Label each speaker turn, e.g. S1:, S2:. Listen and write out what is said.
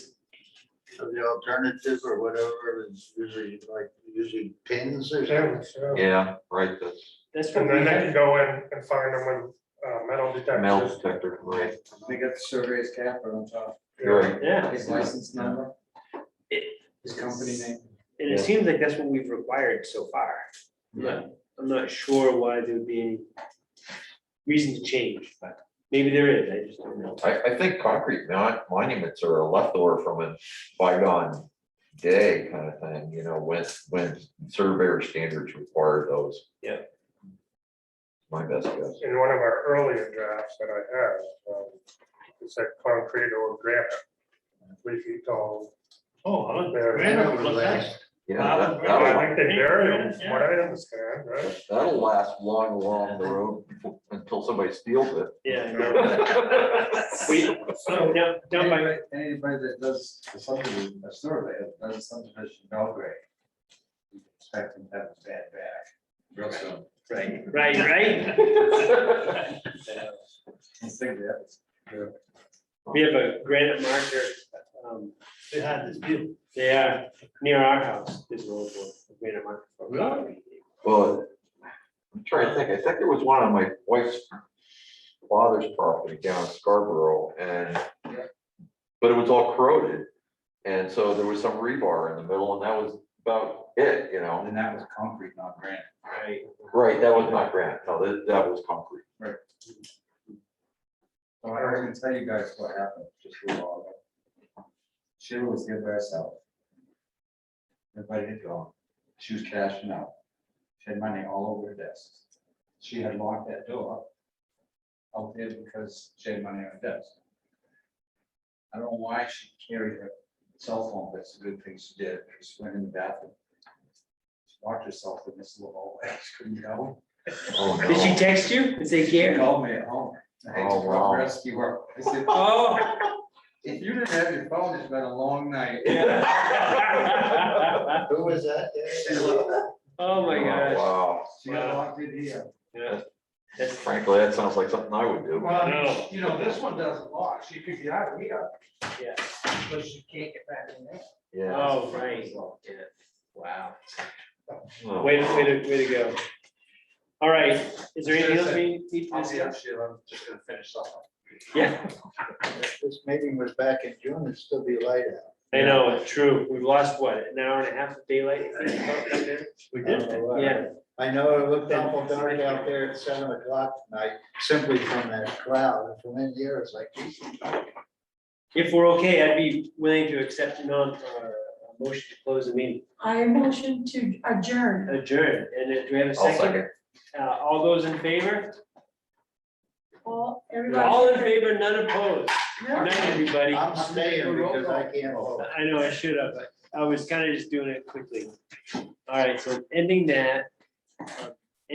S1: So the alternative or whatever is usually like, usually pins or something.
S2: pins, yeah.
S3: Yeah, right, that's
S4: That's what
S2: And
S4: we
S2: then they
S4: have.
S2: can go in and find them with uh, metal
S3: metal
S2: detectors.
S3: detector, right,
S5: They got the surveyor's cap on top,
S3: you're right.
S4: Yeah,
S5: his license number, his company name.
S4: and it seems like that's what we've required so far. I'm not, I'm not sure why there would be any reason to change, but maybe there is, I just don't know.
S3: I, I think concrete mon- monuments are a leftover from a bygone day kind of thing, you know, when, when surveyor standards require those.
S4: Yeah.
S3: My best guess.
S2: In one of our earlier drafts that I had, um, it said concrete or granite, three feet tall.
S6: Oh, I don't-
S2: There.
S6: Granite
S1: That
S6: was
S1: was
S6: nice.
S1: last.
S3: Yeah,
S6: Wow.
S3: that-
S2: But
S3: that'll,
S2: I think they
S6: Yeah,
S2: vary them,
S6: granite,
S2: from what I understand, right?
S3: that'll last long along the road befo- until somebody steals it.
S4: Yeah. I know.
S3: Yeah,
S4: We, so down, down by,
S5: Anybody anybody that does a subdivision, a survey, that does a subdivision Belgrade. you can Expect them to have a bad back. Real soon. Right.
S4: right, right?
S5: Let's think of that.
S4: We have a granite marker, um,
S6: They had this beautiful.
S4: they are near our house, this old one, a granite marker. Really?
S3: Well, I'm trying to think, I think there was one on my wife's father's property down in Scarborough and, but it was all corroded. And so there was some rebar in the middle and that was about it, you know?
S5: And that was concrete, not granite.
S4: Right.
S3: Right, that was not granite, no, that, that was concrete.
S5: So I don't even tell you guys what happened, just leave all of it. She was here by herself. Everybody had gone. She was cashing out. She had money all over her desk. She had locked that door out there because she had money on her desk. I don't know why she carried her cell phone, but it's a good thing she did. She went in the bathroom. She Locked herself in this little hallway. She couldn't go.
S3: Oh,
S4: Did she
S3: no.
S4: text you and say,
S5: She
S4: Gary?
S5: called me at home. I had to
S3: Oh, wow.
S5: rescue her. I said,
S4: Oh.
S5: if you didn't have your phone, it's been a long night.
S4: Oh,
S1: Who was that?
S4: my
S3: Oh,
S4: gosh.
S3: Wow,
S5: She got locked in here.
S4: Yeah. That's
S3: frankly, that sounds like something I would
S4: Oh.
S3: do.
S5: Well, I mean,
S4: No.
S5: you know, this one doesn't lock. She could get out of here,
S4: Yeah.
S5: but she can't get back in there.
S3: Yeah.
S4: Oh, right. Yeah. Wow.
S3: Oh.
S4: Way to, way to, way to go. All right, is there anything else we need to
S5: I'll be up,
S4: discuss?
S5: Sheila. I'm just gonna finish up.
S4: Yeah,
S1: If This meeting was back in June, it'd still be light out.
S4: I know, it's true. We've lost what, an hour and a half of daylight?
S1: We
S4: did. Yeah,
S1: I know it looked awful dark out there at seven o'clock tonight, simply from that cloud. From in here, it's like, geez,
S4: if we're okay, I'd be willing to accept a non, uh, a motion to close the meeting,
S7: I motion to adjourn.
S4: adjourn. And then do we have a
S3: I'll
S4: second?
S3: second.
S4: Uh, all those in favor?
S7: All, everybody.
S4: All in favor, none opposed. Good
S7: Yeah.
S4: night, everybody.
S1: I'm staying because I can't vote.
S4: I know I should have, but I was kind of just doing it quickly. All right, so ending that. uh,